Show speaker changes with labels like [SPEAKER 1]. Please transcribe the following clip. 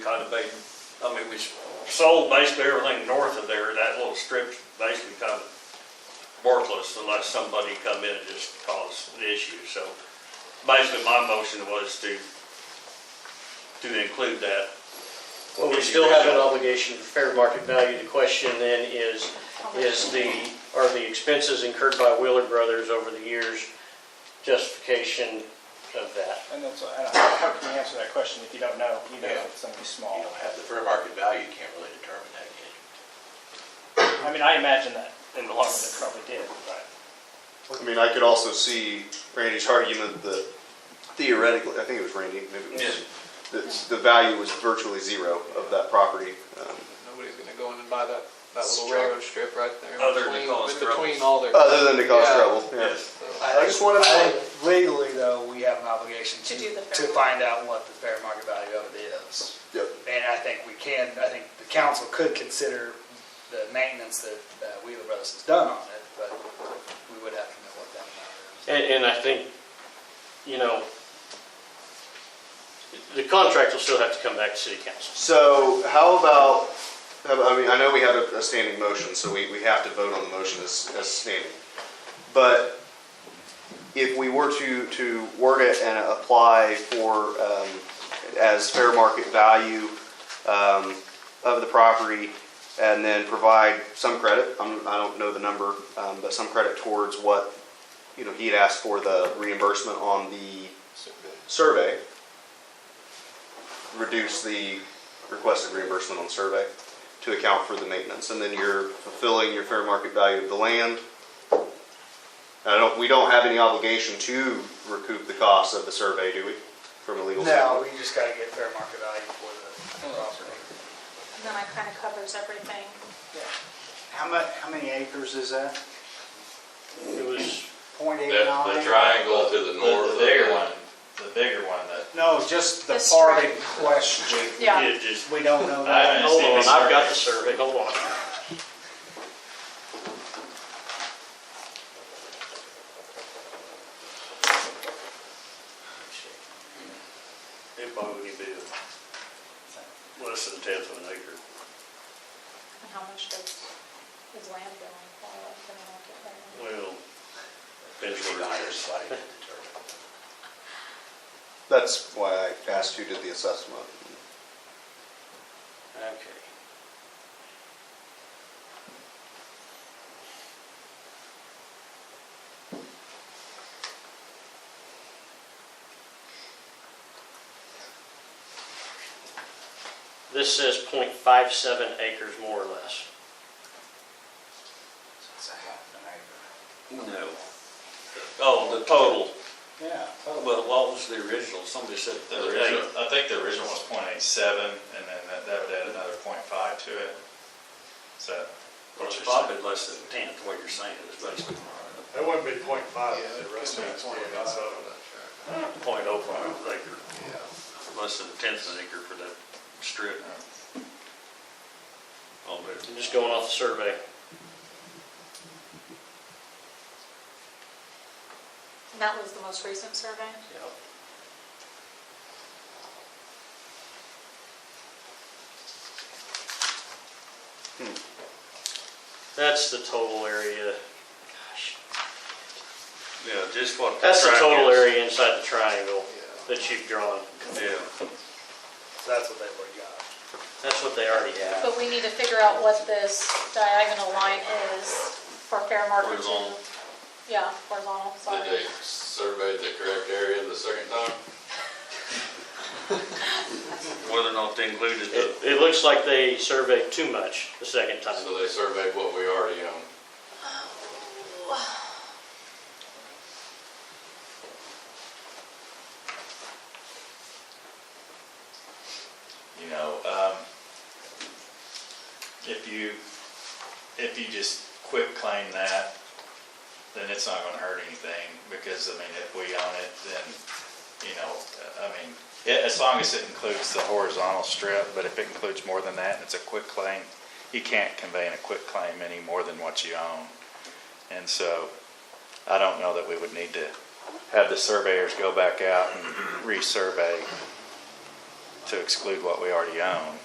[SPEAKER 1] it was sold basically everything north of there, that little strip basically kind of worthless unless somebody come in and just cause an issue, so basically my motion was to, to include that.
[SPEAKER 2] Well, we still have an obligation for fair market value. The question then is, is the, are the expenses incurred by Wheeler Brothers over the years justification of that?
[SPEAKER 3] And that's, I don't know, how can you answer that question if you don't know, even if it's something
[SPEAKER 4] You
[SPEAKER 3] small?
[SPEAKER 4] don't have the fair market value, you can't really determine that, can you?
[SPEAKER 3] I mean, I imagine that in the long run, it probably did, but.
[SPEAKER 5] I mean, I could also see Randy's argument that theoretically, I think it was Randy, maybe it was, that the value was virtually zero of that property. Um,
[SPEAKER 6] Nobody's gonna go in and buy that, that little railroad strip right there.
[SPEAKER 4] Oh,
[SPEAKER 1] Other than
[SPEAKER 6] between-
[SPEAKER 1] cause
[SPEAKER 6] Between
[SPEAKER 1] troubles.
[SPEAKER 6] all their.
[SPEAKER 5] Other than to cause
[SPEAKER 6] Yeah.
[SPEAKER 5] trouble, yeah.
[SPEAKER 1] Yes.
[SPEAKER 6] So,
[SPEAKER 7] I just want to know legally, though, we have an obligation
[SPEAKER 8] To do the
[SPEAKER 7] to,
[SPEAKER 8] fair
[SPEAKER 7] to find out what the fair market value of it is.
[SPEAKER 5] Yep.
[SPEAKER 7] And I think we can, I think the council could consider the maintenance that uh, Wheeler Brothers has done on it, but we would have to know what that amount is.
[SPEAKER 2] And, and I think, you know, the contract will still have to come back to city council.
[SPEAKER 5] So how about, I mean, I know we have a- a standing motion, so we, we have to vote on the motion as, as standing. But if we were to, to word it and apply for, um, as fair market value, um, of the property and then provide some credit, I'm, I don't know the number, um, but some credit towards what, you know, he had asked for the reimbursement on the survey, reduce the requested reimbursement on survey to account for the maintenance, and then you're fulfilling your fair market value of the land. I don't, we don't have any obligation to recoup the cost of the survey, do we, from a legal
[SPEAKER 7] No,
[SPEAKER 5] standpoint?
[SPEAKER 7] we just gotta get fair market value for the property.
[SPEAKER 8] And then it kind of covers everything.
[SPEAKER 9] How mu, how many acres is that?
[SPEAKER 2] It was,
[SPEAKER 9] Point eight
[SPEAKER 10] The, the
[SPEAKER 9] nine?
[SPEAKER 10] triangle to the north.
[SPEAKER 4] The bigger one, the bigger one that
[SPEAKER 9] No, just the
[SPEAKER 8] The
[SPEAKER 9] part in
[SPEAKER 8] strike.
[SPEAKER 9] question.
[SPEAKER 8] Yeah.
[SPEAKER 1] It just,
[SPEAKER 9] We don't know
[SPEAKER 4] I-
[SPEAKER 9] that.
[SPEAKER 2] hold on, I've got the survey, hold on.
[SPEAKER 1] it probably would be less than a tenth of an acre.
[SPEAKER 8] And how much does his land go on for, if they don't get that?
[SPEAKER 1] Well, depends where
[SPEAKER 4] we need a
[SPEAKER 1] it
[SPEAKER 4] higher
[SPEAKER 1] is.
[SPEAKER 4] site to determine.
[SPEAKER 5] That's why I asked who did the assessment.
[SPEAKER 2] Okay. This says .57 acres more or less.
[SPEAKER 9] It's a half an
[SPEAKER 1] No. Oh, the total,
[SPEAKER 9] acre. Yeah.
[SPEAKER 1] well, what was the original? Somebody said
[SPEAKER 4] The
[SPEAKER 1] the
[SPEAKER 4] original,
[SPEAKER 1] eight.
[SPEAKER 4] I think the original was point eight seven, and then that, that would add another point five to it. So.
[SPEAKER 1] Well, it's probably less than a tenth, what you're saying is basically
[SPEAKER 11] That wouldn't be point
[SPEAKER 4] uh,
[SPEAKER 11] five, the rest of it's
[SPEAKER 6] between-
[SPEAKER 11] point
[SPEAKER 6] that's
[SPEAKER 11] five.
[SPEAKER 6] all of that,
[SPEAKER 1] point oh five acre,
[SPEAKER 6] yeah.
[SPEAKER 1] less than a tenth of an acre for that strip. Oh, but
[SPEAKER 2] I'm just going off the survey.
[SPEAKER 8] And that was the most recent survey?
[SPEAKER 2] That's the total area. Gosh.
[SPEAKER 1] Yeah, just what.
[SPEAKER 2] That's the
[SPEAKER 1] track
[SPEAKER 2] total
[SPEAKER 1] is.
[SPEAKER 2] area inside the triangle that you've drawn.
[SPEAKER 1] Yeah,
[SPEAKER 7] That's what they've already got.
[SPEAKER 2] That's what they already have.
[SPEAKER 8] But we need to figure out what this diagonal line is for fair market to.
[SPEAKER 10] Horizontal.
[SPEAKER 8] Yeah, horizontal,
[SPEAKER 10] Did
[SPEAKER 8] sorry.
[SPEAKER 10] they survey the correct area the second time?
[SPEAKER 1] whether or not they included the,
[SPEAKER 2] It, it looks like they surveyed too much the second time.
[SPEAKER 10] So they surveyed what we already own.
[SPEAKER 4] you know, um, if you, if you just quit claim that, then it's not gonna hurt anything, because, I mean, if we own it, then, you know, I mean, a- as long as it includes the horizontal strip, but if it includes more than that, and it's a quit claim, you can't convey in a quit claim any more than what you own. And so, I don't know that we would need to have the surveyors go back out and resurvey to exclude what we already own.